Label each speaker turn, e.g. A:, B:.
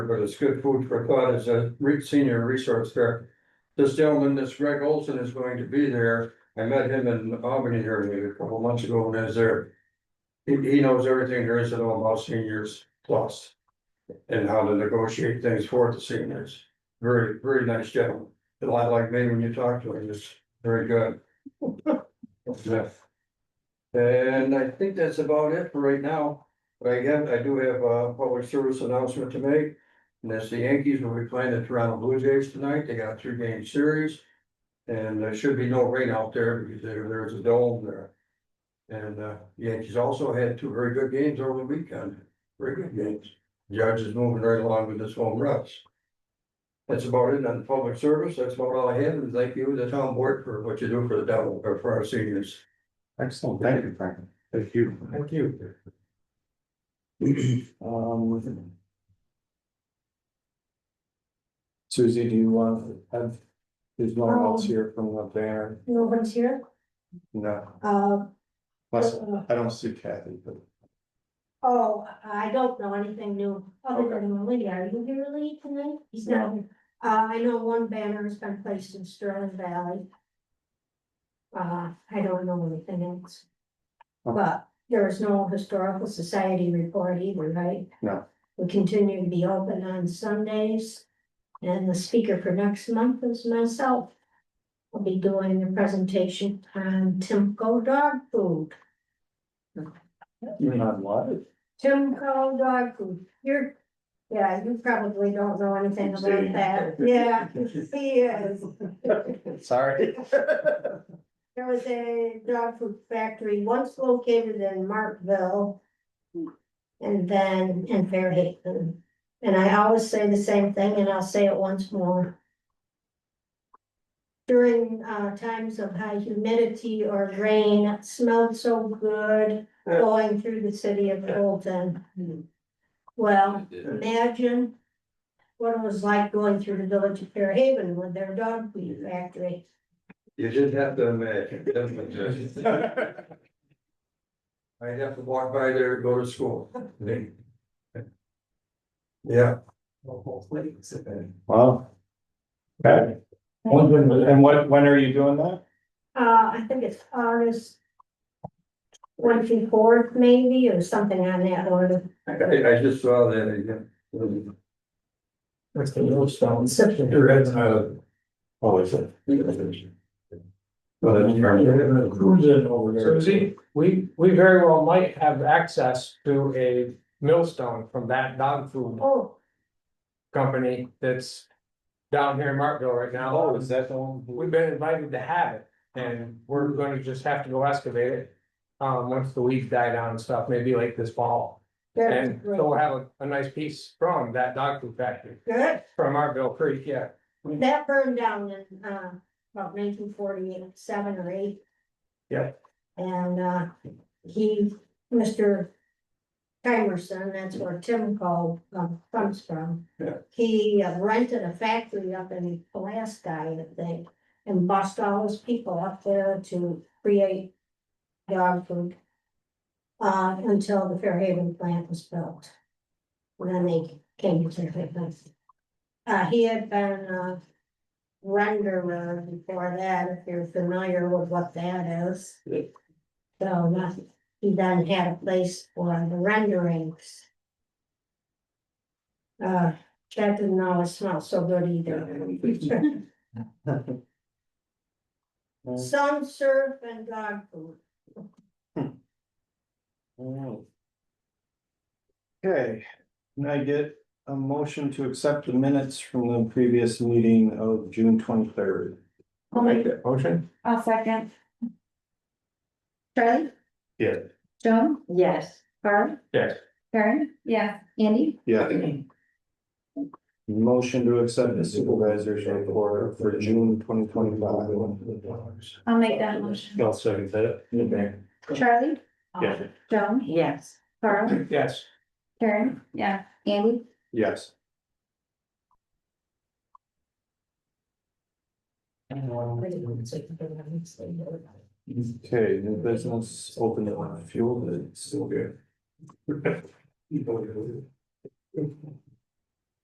A: but it's good food for thought as a re- senior resource there. This gentleman, this Greg Olson is going to be there. I met him in Albany here maybe a couple months ago when I was there. He, he knows everything there is to know about seniors plus. And how to negotiate things for the seniors. Very, very nice gentleman. A lot like me when you talk to him, it's very good. Yeah. And I think that's about it for right now. But I have, I do have a public service announcement to make. And that's the Yankees will be playing the Toronto Blue Jays tonight. They got a three game series. And there should be no rain out there because there, there's a dome there. And uh, Yankees also had two very good games over the weekend, very good games. Judge is moving right along with his home runs. That's about it on the public service. That's about all I have. And thank you, the town board, for what you do for the devil, or for our seniors.
B: Excellent, thank you, Franklin. Thank you.
A: Thank you.
B: Um. Suzie, do you want to have, there's no one else here from the banner?
C: No one's here,
B: No,
C: uh.
B: plus,
C: uh,
B: I don't see Kathy, but
C: Oh, I don't know anything new, other than Lee, are you here Lee tonight? He's not, here. uh, I know one banner has been placed in Sterling Valley. Uh, I don't know anything else.
B: Okay.
C: But there is no historical society report either, right?
B: No.
C: We continue to be open on Sundays, and the speaker for next month is myself. I'll be doing a presentation on Timco dog food.
B: you're not live.
C: Timco dog food, you're, yeah, you probably don't know anything about that, yeah, he is.
B: Sorry.
C: There was a dog food factory once located in Markville. And then in Fairhaven, and I always say the same thing, and I'll say it once more. During uh times of high humidity or rain, it smelled so good going through the city of Fulton. Well, imagine what it was like going through the village of Fairhaven with their dog food factory.
A: You didn't have to imagine. that's what it is. I'd have to walk by there to go to school. Yeah.
B: Wow. Okay. And what, when are you doing that?
C: Uh, I think it's August twenty-fourth maybe, or something on that order.
A: I, I just saw that again.
D: That's the little stone.
C: Exception.
B: Oh, is it?
D: Cruising over there. Suzie, we, we very well might have access to a millstone from that dog food
C: Oh,
D: company that's down here in Martville right now.
B: Oh, is that the one? who-
D: We've been invited to have it, and we're gonna just have to go excavate it. Um, once the weeds die down and stuff, maybe like this fall,
C: that'd be
D: and
C: great.
D: so we'll have a, a nice piece from that dog food factory,
C: Good,
D: from Martville Creek, yeah.
C: that burned down in, uh, about nineteen forty-seven or eight.
D: Yep.
C: And, uh, he, Mr. Timerson, that's where Tim called, um, comes from.
A: Yeah.
C: He uh, rented a factory up in Alaska, I think, and bossed all his people up there to create dog food. Uh, until the Fairhaven plant was built. When then they came to Fairhaven. Uh, he had been, uh, renderer before that, if you're familiar with what that is.
D: Yeah.
C: So not, he then had a place for the renderings. Uh, that didn't always smell so good either. Sun surf and dog food.
B: Alright. Okay, can I get a motion to accept the minutes from the previous meeting of June twenty-third?
E: I'll make,
D: that motion.
E: I'll second.
C: Charlie?
B: Yeah.
E: Joan? Yes. Carl?
D: Yes.
E: Karen? Yeah. Andy?
B: Yeah. Motion to accept the supervisor's report for June twenty twenty-five.
E: I'll make that motion.
B: I'll second that.
E: Charlie?
C: Oh,
B: Yeah.
E: Joan? Yes. Carl?
D: Yes,
E: Karen? Yeah. Andy?
B: Yes. Okay, new business, open it on fuel, it's still good.